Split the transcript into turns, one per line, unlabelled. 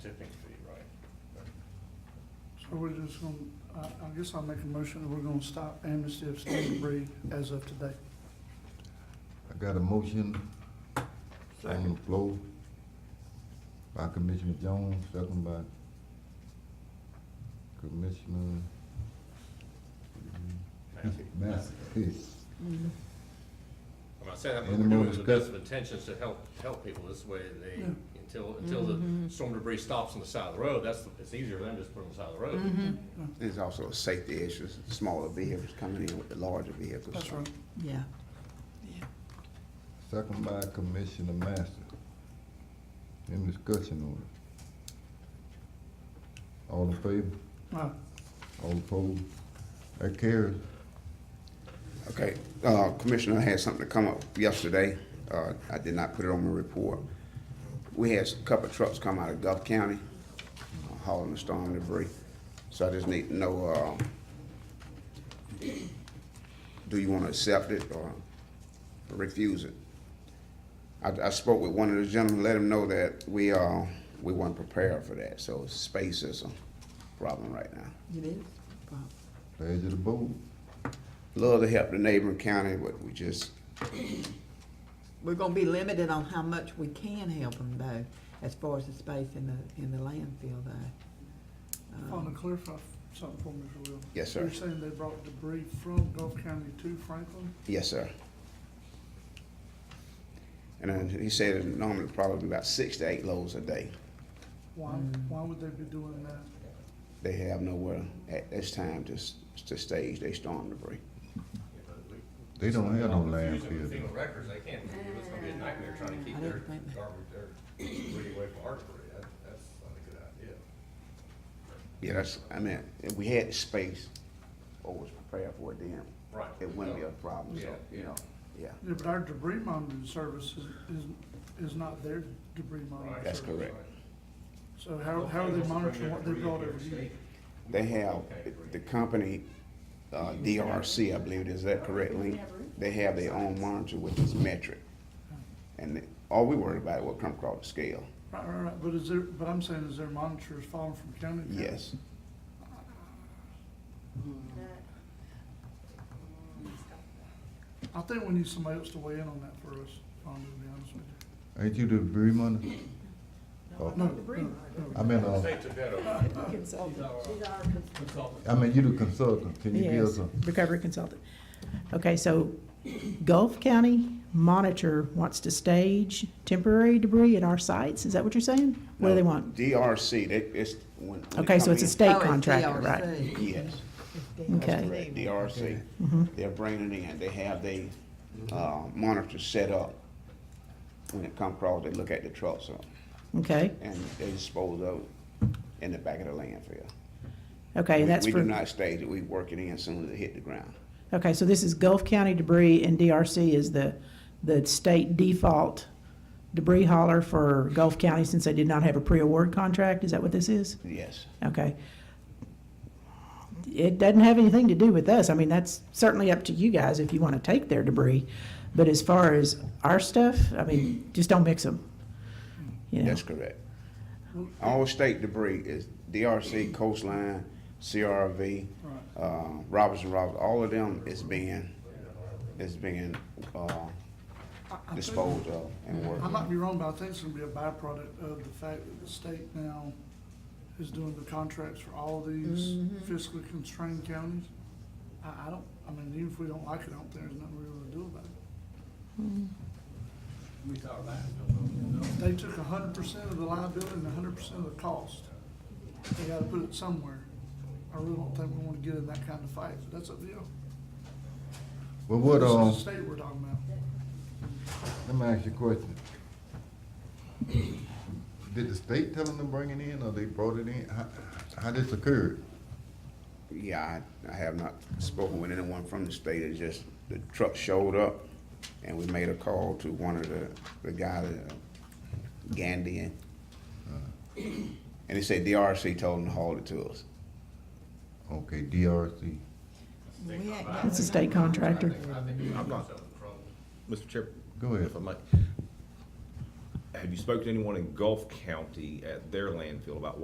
So we're just gonna, I, I guess I'll make a motion that we're gonna stop amnesty of standard breed as of today.
I got a motion on the floor by Commissioner Jones, second by Commissioner Hmm.
Massey.
Massey.
I'm not saying that, but
Any
we're
more
doing it with best of
discuss-
intentions to help, help people this way, they,
Yeah. Mm-hmm.
until, until the storm debris stops on the side of the road, that's, the- it's easier than just putting it on the side of the
Mm-hmm.
road.
There's also a safety issues, smaller vehicles coming in with the larger vehicles.
That's right.
Yeah.
Second by Commissioner Master. Any discussion on it? All in favor?
Right.
All opposed? That carries.
Okay, uh, Commissioner I had something to come up yesterday, uh, I did not put it on my report. We had a couple of trucks come out of Gulf County uh, hauling the storm debris, so I just need to know, um, do you wanna accept it or refuse it? I, I spoke with one of the gentlemen, let him know that we, uh, we weren't prepared for that, so space is a problem right now.
It is.
Pleasure to vote.
Love to help the neighboring county, but we just,
We're gonna be limited on how much we can help them though, as far as the space in the, in the landfill though.
Want
Um,
to clarify something for me, if you will?
Yes, sir.
You're saying they brought debris from Gulf County to Franklin?
Yes, sir. And then he said it normally probably about six to eight loads a day.
Why, why would they be doing that?
They have nowhere at this time to, s- to stage their storm debris.
They don't have no
Confusing
landfill.
with
though.
FEMA records, they can't, it's gonna be a nightmare trying to
I
keep
didn't
their
think that.
garbage, their debris away from our debris, that, that's not a good idea.
Yeah, that's, I mean, if we had the space, or was prepared for it then,
Right.
it wouldn't be a problem, so,
Yeah,
you
yeah.
know, yeah.
Yeah, but our debris monitoring service is, is, is not their debris monitoring.
Right.
That's
service.
correct.
So how, how are they monitoring what they brought over here?
They have, the company, uh, DRC, I believe, is that correct, Lee? They have their own monitor, which is metric. And they- all we worry about will come across the scale,
Right, right, right, but is there, but I'm saying is their monitors falling from county to county?
yes.
I think we need somebody else to weigh in on that for us, um, to be honest with you.
Ain't you the debris money? Oh,
No, no, no.
I mean, uh,
State took that over.
I mean, you the consultant. Can you give us
Yes,
a?
recovery consultant. Okay, so Gulf County Monitor wants to stage temporary debris at our sites, is that what you're saying? What do they
No,
want?
DRC, they, it's when. when they
Okay, so
come
it's a
in-
oh,
state
it's
contractor, right?
DRC.
Yes,
Okay.
correct, DRC.
Mm-hmm.
They're bringing it in, they have they, uh, monitor set up. When it come across, they look at the trucks uh,
Okay,
and they dispose of it in the back of the landfill.
okay,
We-
and that's
We do
for,
not stage it, we work it in as soon as it hit the ground.
okay, so this is Gulf County debris and DRC is the, the state default debris hauler for Gulf County since they did not have a pre-award contract, is that what this is?
Yes,
Okay. It doesn't have anything to do with us. I mean, that's certainly up to you guys if you want to take their debris. But as far as our stuff, I mean, just don't mix them. You know,
that's correct. All state debris is DRC, coastline, CRV,
Right.
uh, Robertson Robinson, all of them is being, is being, uh,
I- I think-
disposed of and
I
worked.
might be wrong, but I think it's gonna be a byproduct of the fact that the state now is doing the contracts for all these fiscally constrained counties. I, I don't, I mean, even if we don't like it out there, there's nothing we're gonna do about it.
Hmm. We thought about it.
They took a hundred percent of the liability and a hundred percent of the cost. They gotta put it somewhere. I really don't think we wanna get in that kind of fight, but that's up to you.
Well, what,
This
um,
is the state we're talking about.
let me ask you a question. Did the state tell them to bring it in or they brought it in? How, how this occurred?
Yeah, I, I have not spoken with anyone from the state, it's just, the truck showed up, and we made a call to one of the, the guy, uh, Gandy, and, and he said DRC told him to haul it to us.
Okay, DRC.
it's a state contractor.
I'm not.
Mr. Chair,
Go ahead.
if I might, have you spoken to anyone in Gulf County at their landfill about